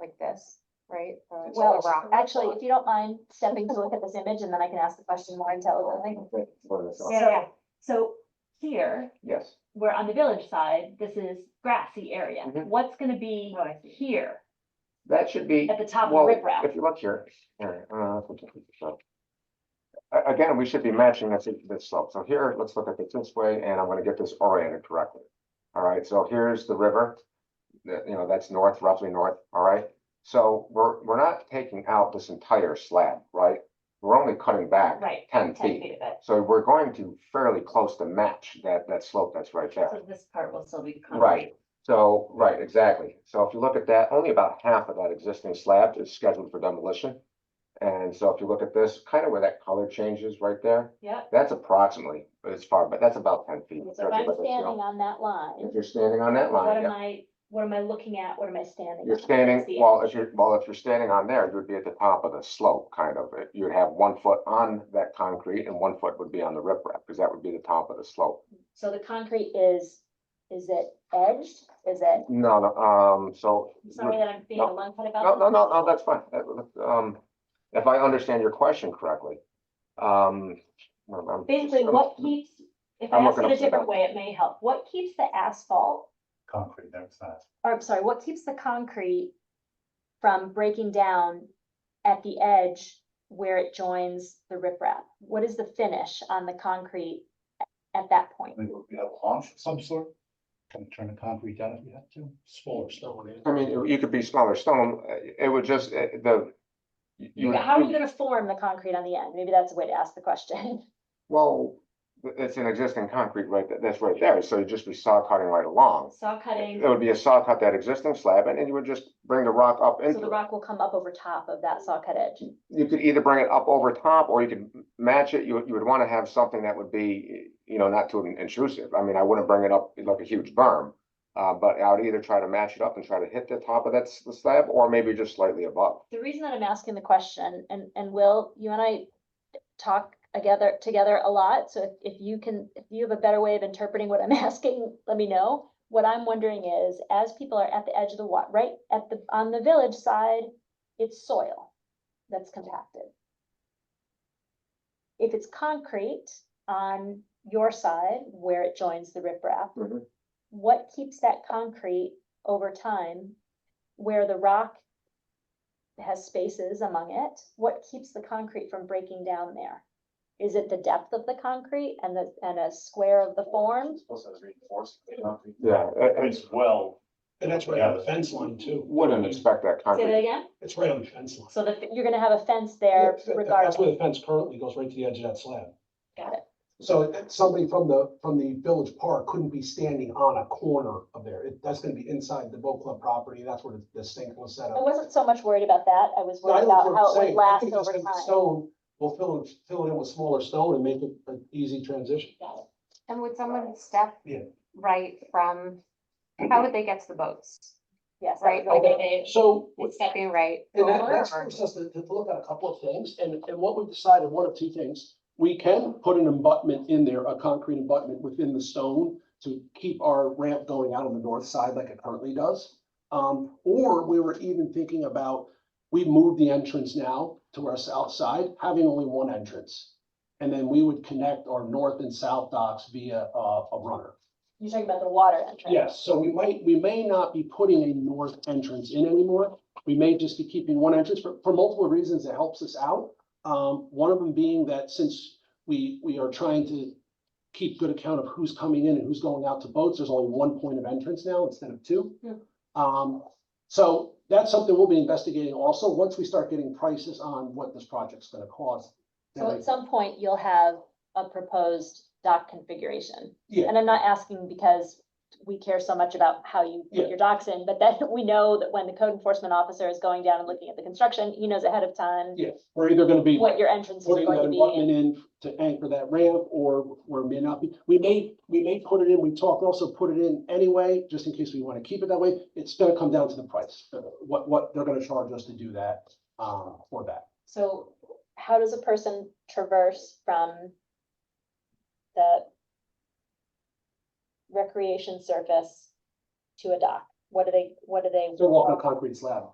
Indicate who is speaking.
Speaker 1: like this, right? Or it's
Speaker 2: Uh, Well,
Speaker 1: all rock.
Speaker 2: actually, if you don't mind stepping to look at this image and then I can ask the question more intelligently.
Speaker 3: Okay, for the song.
Speaker 1: Yeah, yeah,
Speaker 4: So here,
Speaker 3: Yes,
Speaker 4: we're on the village side, this is grassy area.
Speaker 3: Mhm.
Speaker 4: What's gonna be
Speaker 1: Oh, I see.
Speaker 4: here
Speaker 3: that should be,
Speaker 4: at the top
Speaker 3: well,
Speaker 4: of riprap?
Speaker 3: if you look here, here, uh, so. A- Again, we should be matching this, this slope. So here, let's look at it this way, and I'm gonna get this oriented correctly. All right, so here's the river. That, you know, that's north, roughly north, all right? So we're, we're not taking out this entire slab, right? We're only cutting back
Speaker 4: Right,
Speaker 3: ten
Speaker 4: ten
Speaker 3: feet.
Speaker 4: feet of it.
Speaker 3: So we're going to fairly close to match that, that slope that's right there.
Speaker 4: So this part will still be.
Speaker 3: Right, so, right, exactly. So if you look at that, only about half of that existing slab is scheduled for demolition. And so if you look at this, kind of where that color changes right there,
Speaker 4: Yeah,
Speaker 3: that's approximately, as far, but that's about ten feet.
Speaker 2: So if I'm standing on that
Speaker 3: If
Speaker 2: line,
Speaker 3: you're standing on that
Speaker 2: what
Speaker 3: line,
Speaker 2: am
Speaker 3: yeah.
Speaker 2: I, what am I looking at? What am I standing?
Speaker 3: You're
Speaker 2: on?
Speaker 3: standing,
Speaker 2: What's the
Speaker 3: well,
Speaker 2: image?
Speaker 3: if you're, well, if you're standing on there, you'd be at the top of the slope, kind of. You'd have one foot on that concrete and one foot would be on the riprap, because that would be the top of the slope.
Speaker 2: So the concrete is, is it edged? Is it,
Speaker 3: No, no, um, so.
Speaker 4: I'm sorry that I'm being
Speaker 3: No.
Speaker 4: a long cut
Speaker 3: No,
Speaker 4: about.
Speaker 3: no, no, no, that's fine. That- that- Um, if I understand your question correctly, um. I'm- I'm-
Speaker 4: Basically, what keeps, if I
Speaker 3: I'm
Speaker 4: ask
Speaker 3: looking
Speaker 4: it a
Speaker 3: upside
Speaker 4: different
Speaker 3: down.
Speaker 4: way, it may help. What keeps the asphalt,
Speaker 5: concrete outside.
Speaker 2: or Oh, I'm sorry, what keeps the concrete from breaking down at the edge where it joins the riprap? What is the finish on the concrete at that point?
Speaker 5: Maybe we have a launch of some sort. Can turn the concrete down if you have to, smaller stone.
Speaker 3: I mean, you could be smaller stone, uh, it would just, uh, the. you- you-
Speaker 2: How are you gonna form the concrete on the end? Maybe that's a way to ask the question.
Speaker 3: Well, it's an existing concrete right, th- that's right there, so you'd just be saw cutting right along.
Speaker 4: saw
Speaker 3: It
Speaker 4: cutting?
Speaker 3: would be a saw cut that existing slab and then you would just bring the rock up
Speaker 2: So the
Speaker 3: into it.
Speaker 2: rock will come up over top of that saw cut edge.
Speaker 3: You could either bring it up over top or you could match it, you, would- you would wanna have something that would be, you know, not too intrusive. I mean, I wouldn't bring it up like a huge berm. Uh, but I would either try to match it up and try to hit the top of that s- the slab or maybe just slightly above.
Speaker 2: The reason that I'm asking the question, and, and Will, you and I talk together, together a lot, so if, if you can, if you have a better way of interpreting what I'm asking, let me know. What I'm wondering is, as people are at the edge of the wa, right, at the, on the village side, it's soil that's compacted. If it's concrete on your side where it joins the riprap,
Speaker 3: Mhm.
Speaker 2: what keeps that concrete over time where the rock has spaces among it, what keeps the concrete from breaking down there? Is it the depth of the concrete and the, and a square of the form?
Speaker 5: Also reinforced concrete.
Speaker 3: Yeah,
Speaker 5: I mean,
Speaker 3: I,
Speaker 5: It's well,
Speaker 6: And that's right on the fence line too.
Speaker 3: wouldn't expect that
Speaker 4: Say
Speaker 3: concrete.
Speaker 4: that again?
Speaker 6: It's right on the fence line.
Speaker 2: So the, you're gonna have a fence there
Speaker 6: That- that- That's where
Speaker 2: regardless.
Speaker 6: the fence currently goes, right to the edge of that slab.
Speaker 2: Got it.
Speaker 6: So it- somebody from the, from the village park couldn't be standing on a corner of there. It- That's gonna be inside the boat club property. That's where the- the sink was set
Speaker 2: I
Speaker 6: up.
Speaker 2: wasn't so much worried about that. I was
Speaker 6: No, I
Speaker 2: worried
Speaker 6: know what
Speaker 2: about
Speaker 6: you're
Speaker 2: how it would
Speaker 6: saying. I
Speaker 2: last
Speaker 6: think
Speaker 2: over
Speaker 6: just take the
Speaker 2: time.
Speaker 6: Stone, we'll fill it, fill it in with smaller stone and make it an easy transition.
Speaker 1: And would someone step
Speaker 6: Yeah.
Speaker 1: right from, how would they get to the boats?
Speaker 2: Yes. that
Speaker 1: Right,
Speaker 2: was
Speaker 1: like
Speaker 2: my-
Speaker 1: they,
Speaker 6: So.
Speaker 1: would stepping right
Speaker 6: And that,
Speaker 1: over
Speaker 6: that's
Speaker 1: or-
Speaker 6: forced us to, to look at a couple of things, and, and what we've decided, one of two things. We can put an abutment in there, a concrete abutment within the stone to keep our ramp going out on the north side like it currently does. Um, or we were even thinking about, we move the entrance now to our south side, having only one entrance. And then we would connect our north and south docks via, uh, a runner.
Speaker 2: You're talking about the water entrance.
Speaker 6: Yes, so we might, we may not be putting a north entrance in anymore. We may just be keeping one entrance for, for multiple reasons. It helps us out. Um, one of them being that since we, we are trying to keep good account of who's coming in and who's going out to boats, there's only one point of entrance now instead of two.
Speaker 2: Hmm.
Speaker 6: Um, so that's something we'll be investigating also, once we start getting prices on what this project's gonna cost. then
Speaker 2: So
Speaker 6: I-
Speaker 2: at some point, you'll have a proposed dock configuration.
Speaker 6: Yeah.
Speaker 2: And I'm not asking because we care so much about how you
Speaker 6: Yeah.
Speaker 2: put your docks in, but then we know that when the code enforcement officer is going down and looking at the construction, he knows ahead of time
Speaker 6: Yeah, we're either gonna be.
Speaker 2: what your entrances are
Speaker 6: putting
Speaker 2: going
Speaker 6: that
Speaker 2: to be.
Speaker 6: abutment in to anchor that ramp or or may not be. We may, we may put it in, we talked also put it in anyway, just in case we want to keep it that way. It's gonna come down to the price, uh, what what they're gonna charge us to do that uh for that.
Speaker 2: So how does a person traverse from the recreation surface to a dock? What do they, what do they?
Speaker 6: uh, They're walking a concrete slab.